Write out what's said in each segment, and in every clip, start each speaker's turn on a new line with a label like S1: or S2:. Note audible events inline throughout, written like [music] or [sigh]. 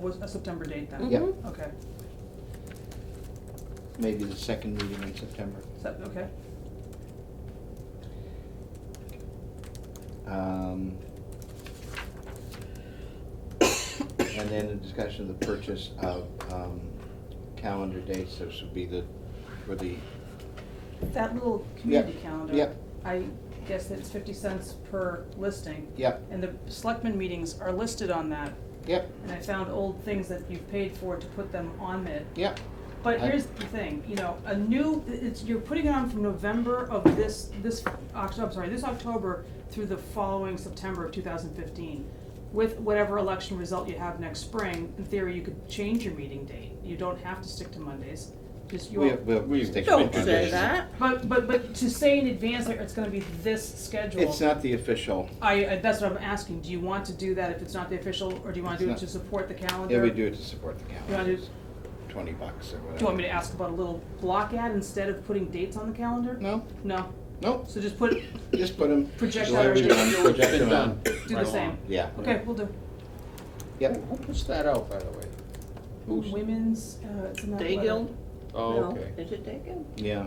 S1: Was a September date then?
S2: Yeah,
S3: Mhm.
S1: Okay,
S2: maybe the second meeting in September.
S1: is that, okay,
S2: Um, [coughs] And then a discussion of the purchase of um, calendar dates, this would be the, for the,
S1: that little community calendar.
S2: yep.
S1: I guess it's fifty cents per listing,
S2: yep,
S1: and the selectmen meetings are listed on that,
S2: yep,
S1: and I found old things that you've paid for to put them on it.
S2: yep,
S1: But
S2: I-
S1: here's the thing, you know, a new, it's, you're putting it on from November of this, this, Oct- I'm sorry, this October through the following September of two thousand fifteen. With whatever election result you have next spring, in theory, you could change your meeting date, you don't have to stick to Mondays, just you.
S2: we have, we'll
S4: We-
S2: stick to
S3: Don't say
S2: tradition.
S3: that.
S1: But, but, but to say in advance, like, it's gonna be this schedule.
S2: It's uh, not the official,
S1: I, I, that's what I'm asking, do you want to do that if it's not the official, or do you wanna
S2: It's
S1: do it
S2: not-
S1: to support the calendar?
S2: yeah, we do it to support the calendar,
S1: do-
S2: twenty bucks or whatever.
S1: Do you want me to ask about a little block ad instead of putting dates on the calendar?
S2: No,
S1: No,
S2: no,
S1: so just put,
S2: just put them.
S1: Project
S2: Let
S1: out.
S2: everyone
S4: It's
S2: project
S4: been
S2: them out.
S4: done.
S1: do the
S4: Right
S1: same.
S4: along.
S2: Yeah,
S1: Okay, we'll do.
S2: yep,
S4: Who puts that out, by the way? Who's-
S1: Women's, uh, it's in that
S3: Day
S1: letter.
S3: Guild?
S4: Oh,
S3: No.
S4: okay.
S3: Is it Day Guild?
S2: yeah.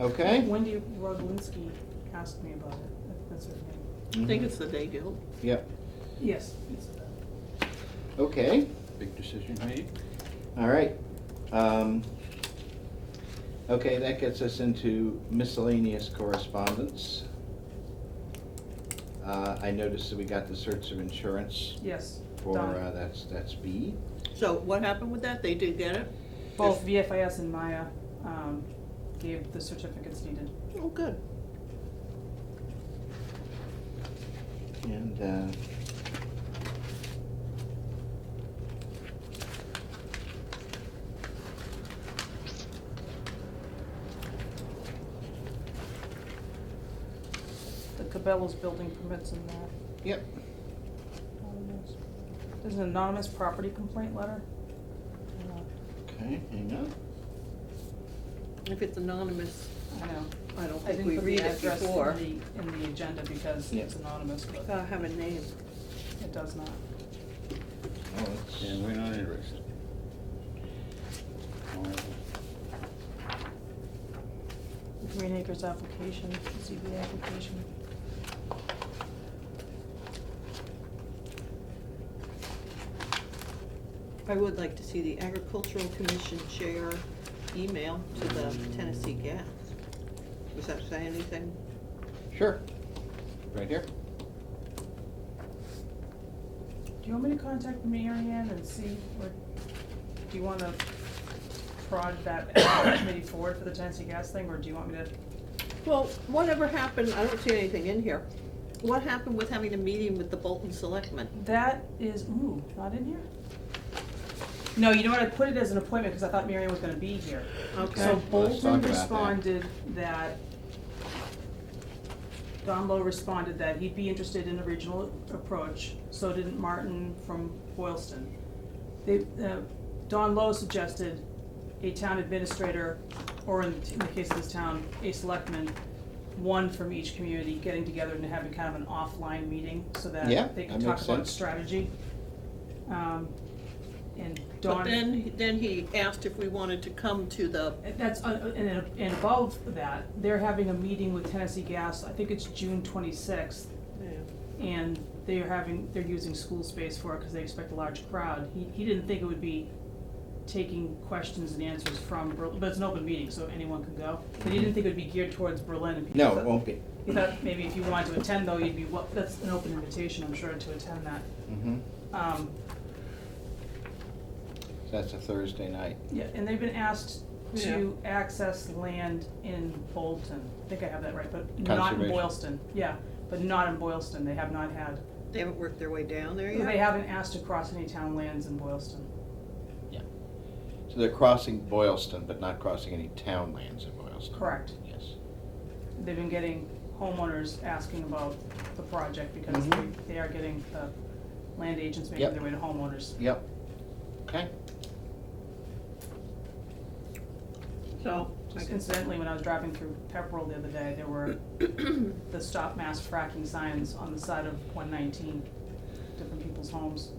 S2: Okay,
S1: Wendy Roglinski asked me about it, That- that's her name.
S3: I think it's the Day Guild.
S2: yep,
S1: Yes.
S2: okay.
S4: Big decision made.
S2: All right. Um, Okay, that gets us into miscellaneous correspondence. Uh, I noticed that we got the certs of insurance
S1: Yes,
S2: for,
S1: Done.
S2: uh, that's, that's B.
S3: So what happened with that? They did get it?
S1: both VFIS and Maya, um, gave the certificates needed.
S3: Oh, good.
S2: And uh,
S1: The Cabela's building permits in that.
S2: Yep,
S1: Anonymous. There's an anonymous property complaint letter. Uh,
S2: okay, hang on.
S3: If it's anonymous,
S1: I know,
S3: I don't
S1: I
S3: think
S1: didn't
S3: we
S1: put
S3: read
S1: the
S3: it
S1: address in
S3: before.
S1: the, in the agenda because
S2: Yeah.
S1: it's anonymous, but
S3: Gotta have a name.
S1: it does not.
S2: Oh, it's-
S4: And we're not interested.
S1: Green Acres application, ZBA application.
S3: I would like to see the agricultural commission chair email to the Tennessee Gas. Does that say anything?
S2: Sure, right here.
S1: Do you want me to contact Mary Ann and see, or do you wanna prod that committee forward for the Tennessee gas thing, or do you want me to?
S3: Well, whatever happened, I don't see anything in here. What happened with having a meeting with the Bolton Selectmen?
S1: That is, ooh, not in here? No, you know what, I put it as an appointment, cause I thought Mary Ann was gonna be here.
S3: Okay.
S1: So
S2: Well, let's talk
S1: Bolton
S2: about that.
S1: responded that, Don Lowe responded that he'd be interested in a regional approach, so didn't Martin from Boylston. They, uh, Don Lowe suggested a town administrator, or in, in the case of this town, a selectman, one from each community getting together and having kind of an offline meeting, so
S2: Yeah,
S1: that they can
S2: that
S1: talk
S2: makes
S1: about
S2: sense.
S1: strategy. Um, and Don.
S3: But then, then he asked if we wanted to come to the,
S1: And That's, uh, and, and above that, they're having a meeting with Tennessee Gas, I think it's June twenty-sixth, and they are having, they're using school space for it because they expect a large crowd. He, he didn't think it would be taking questions and answers from Berlin, but it's an open meeting, so anyone can go. But he didn't think it would be geared towards Berlin and people.
S2: No, it won't be.
S1: He thought maybe if you wanted to attend though, you'd be, wel- that's an open invitation, I'm sure, to attend that.
S2: Mhm.
S1: Um,
S2: So That's a Thursday night.
S1: Yeah, and they've been asked to access land in Bolton, I think I have that right, but not in
S2: Conservation.
S1: Boylston, yeah, but not in Boylston, they have not had.
S3: they haven't worked their way down there yet?
S1: They haven't asked to cross any town lands in Boylston,
S2: So they're crossing Boylston, but not crossing any town lands in Boylston.
S1: correct,
S2: Yes.
S1: they've been getting homeowners asking about the project because they,
S2: Mhm.
S1: they are getting the land agents
S2: Yep.
S1: making their way to homeowners.
S2: Yep. Okay.
S3: So, I
S1: Just
S3: guess-
S1: incidentally, when I was driving through Pepperell the other day, there were
S2: [coughs]
S1: the stop mass fracking signs on the side of one nineteen, different people's homes.